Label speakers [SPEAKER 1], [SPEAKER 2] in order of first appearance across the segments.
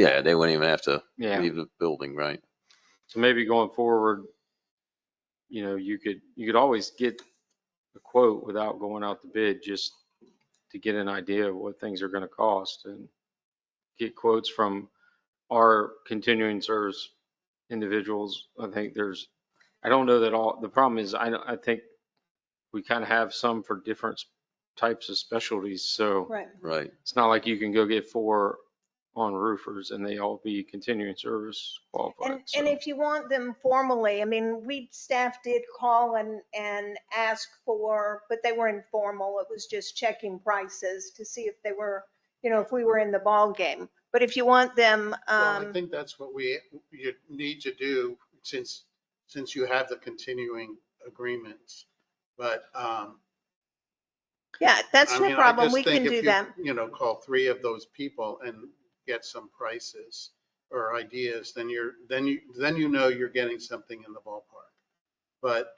[SPEAKER 1] Yeah, they wouldn't even have to
[SPEAKER 2] Yeah.
[SPEAKER 1] leave the building, right?
[SPEAKER 2] So maybe going forward, you know, you could, you could always get a quote without going out to bid, just to get an idea of what things are going to cost and get quotes from our continuing service individuals. I think there's, I don't know that all, the problem is, I, don't- I think we kind of have some for different types of specialties, so
[SPEAKER 3] Right.
[SPEAKER 1] Right.
[SPEAKER 2] it's not like you can go get four on roofers and they all be continuing service qualified.
[SPEAKER 3] And,
[SPEAKER 2] so-
[SPEAKER 3] and if you want them formally, I mean, we, staff did call and, and ask for, but they were informal. It was just checking prices to see if they were, you know, if we were in the ballgame. But if you want them,
[SPEAKER 4] Well, I
[SPEAKER 3] um,
[SPEAKER 4] think that's what we, you need to do since, since you have the continuing agreements. But, um.
[SPEAKER 3] yeah, that's
[SPEAKER 4] I
[SPEAKER 3] no
[SPEAKER 4] mean, I
[SPEAKER 3] problem.
[SPEAKER 4] just
[SPEAKER 3] We
[SPEAKER 4] think
[SPEAKER 3] can
[SPEAKER 4] if
[SPEAKER 3] do
[SPEAKER 4] you,
[SPEAKER 3] that.
[SPEAKER 4] You know, call three of those people and get some prices or ideas, then you're, then you, then you know you're getting something in the ballpark. But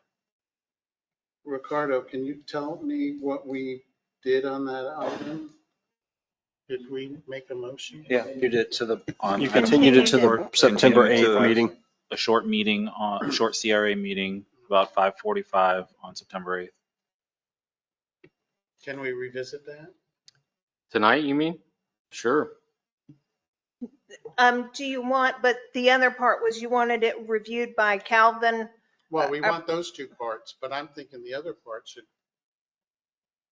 [SPEAKER 4] Ricardo, can you tell me what we did on that item? Did we make a motion?
[SPEAKER 5] Yeah, you did to the, on.
[SPEAKER 6] You
[SPEAKER 3] continued it to the
[SPEAKER 6] September
[SPEAKER 5] Continued to
[SPEAKER 6] 8th
[SPEAKER 5] the-
[SPEAKER 6] meeting.
[SPEAKER 5] A short meeting on, a short CRA meeting about 5:45 on September 8th.
[SPEAKER 4] Can we revisit that?
[SPEAKER 2] Tonight, you mean? Sure.
[SPEAKER 3] Um, do you want, but the other part was you wanted it reviewed by Calvin.
[SPEAKER 4] Well, we
[SPEAKER 3] I- I-
[SPEAKER 4] want those two parts, but I'm thinking the other part should,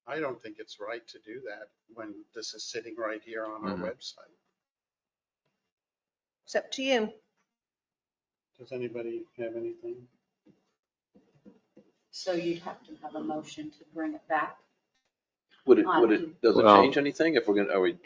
[SPEAKER 4] I don't think it's right to do that when this is sitting right here on our
[SPEAKER 2] Mm-hmm.
[SPEAKER 1] Mhm.
[SPEAKER 4] website.
[SPEAKER 3] It's up to you.
[SPEAKER 4] Does anybody have anything?
[SPEAKER 7] So you'd have to have a motion to bring it back.
[SPEAKER 1] Would it,
[SPEAKER 7] Um,
[SPEAKER 1] would it, does it
[SPEAKER 2] Well-
[SPEAKER 1] change anything if we're gonna, are we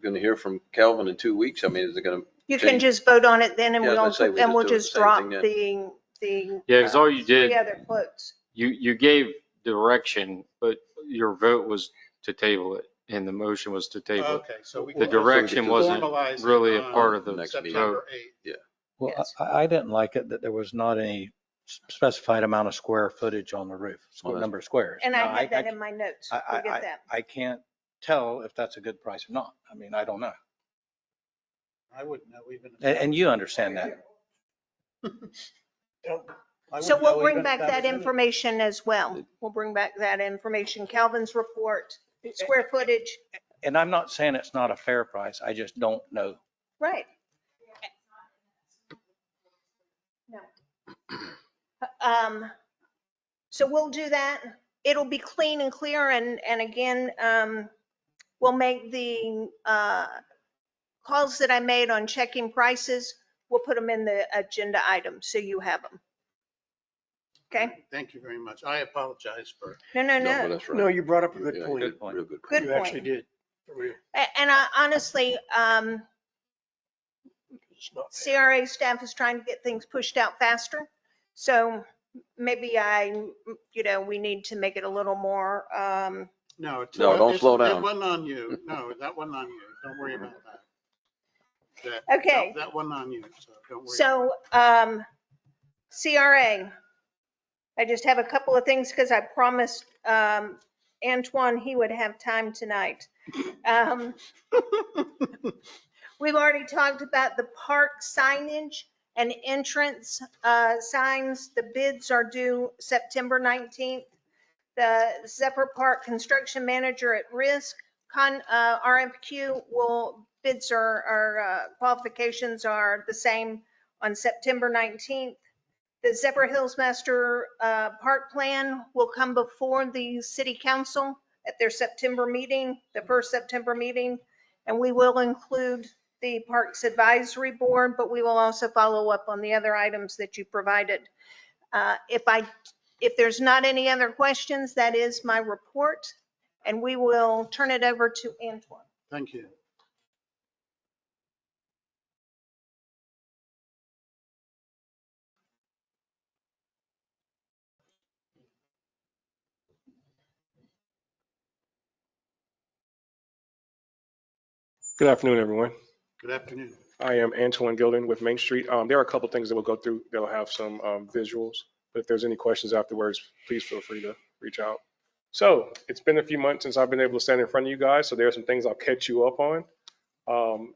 [SPEAKER 1] gonna hear from Calvin in two weeks? I mean, is it gonna,
[SPEAKER 3] You can
[SPEAKER 1] Change.
[SPEAKER 3] just vote on it then and
[SPEAKER 1] Yeah, I was
[SPEAKER 3] we'll,
[SPEAKER 1] gonna say, we
[SPEAKER 3] and
[SPEAKER 1] just
[SPEAKER 3] we'll
[SPEAKER 1] do it the
[SPEAKER 3] just
[SPEAKER 1] same
[SPEAKER 3] drop
[SPEAKER 1] thing then.
[SPEAKER 3] the, the.
[SPEAKER 2] Yeah, because all you did,
[SPEAKER 3] The other quotes.
[SPEAKER 2] you, you gave direction, but your vote was to table it and the motion was to table
[SPEAKER 4] Okay, so we.
[SPEAKER 2] it. The
[SPEAKER 1] Well, I think
[SPEAKER 2] direction
[SPEAKER 1] it's
[SPEAKER 2] wasn't
[SPEAKER 4] formalized
[SPEAKER 2] really a
[SPEAKER 4] on
[SPEAKER 2] part of the
[SPEAKER 1] Next meeting.
[SPEAKER 2] vote.
[SPEAKER 4] September 8th.
[SPEAKER 5] Well,
[SPEAKER 3] Yes.
[SPEAKER 5] I, I didn't like it that there was not any specified amount of square footage on the roof,
[SPEAKER 1] Well,
[SPEAKER 5] square
[SPEAKER 1] that's-
[SPEAKER 5] number of squares.
[SPEAKER 3] And
[SPEAKER 5] Now,
[SPEAKER 3] I had that in my notes.
[SPEAKER 5] I- I-
[SPEAKER 3] We'll get that.
[SPEAKER 5] I can't tell if that's a good price or not. I mean, I don't know.
[SPEAKER 4] I wouldn't know even. if
[SPEAKER 5] And,
[SPEAKER 4] that-
[SPEAKER 5] and you understand that.
[SPEAKER 4] I
[SPEAKER 3] So
[SPEAKER 4] wouldn't
[SPEAKER 3] we'll
[SPEAKER 4] know
[SPEAKER 3] bring
[SPEAKER 4] even if
[SPEAKER 3] back that
[SPEAKER 4] was in it.
[SPEAKER 3] information as well. We'll bring back that information, Calvin's report, square footage,
[SPEAKER 5] And I'm not saying it's not a fair price. I just don't know.
[SPEAKER 3] right. No. Um, so we'll do that. It'll be clean and clear and, and again, um, we'll make the, uh, calls that I made on checking prices, we'll put them in the agenda item so you have them. Okay?
[SPEAKER 4] Thank you very much. I apologize for.
[SPEAKER 3] No, no,
[SPEAKER 1] no, but
[SPEAKER 3] no.
[SPEAKER 1] that's right.
[SPEAKER 6] No, you brought up a
[SPEAKER 1] Yeah,
[SPEAKER 6] good point.
[SPEAKER 1] good- Real good.
[SPEAKER 3] Good
[SPEAKER 6] You actually
[SPEAKER 3] point.
[SPEAKER 6] did.
[SPEAKER 3] A- And I honestly, um,
[SPEAKER 6] It's not fair.
[SPEAKER 3] CRA staff is trying to get things pushed out faster. So maybe I, you know, we need to make it a little more, um,
[SPEAKER 4] No. it's-
[SPEAKER 1] No, don't
[SPEAKER 4] it's-
[SPEAKER 1] slow
[SPEAKER 4] That
[SPEAKER 1] down.
[SPEAKER 4] wasn't on you. No, that wasn't on you. Don't worry about that. That-
[SPEAKER 3] Okay.
[SPEAKER 4] no, That wasn't on you, so don't worry.
[SPEAKER 3] so, um, CRA. I just have a couple of things because I promised, um, Antoine he would have time tonight. Um, We've already talked about the park signage and entrance uh, signs. The bids are due September 19th. The Zephyr Park Construction Manager at Risk, con, uh, RFQ will, bids are, are, uh, qualifications are the same on September 19th. The Zephyr Hills Master uh, Park Plan will come before the city council at their September meeting, the first September meeting. And we will include the Parks Advisory Board, but we will also follow up on the other items that you provided. Uh, If I, if there's not any other questions, that is my report, and we will turn it over to Antoine.
[SPEAKER 4] Thank you.
[SPEAKER 6] Good afternoon, everyone.
[SPEAKER 4] Good afternoon.
[SPEAKER 6] I am Antoine Gilden with Main Street. Um, There are a couple things that we'll go through. They'll have some um, visuals, but if there's any questions afterwards, please feel free to reach out. So it's been a few months since I've been able to stand in front of you guys, so there are some things I'll catch you up on. Um,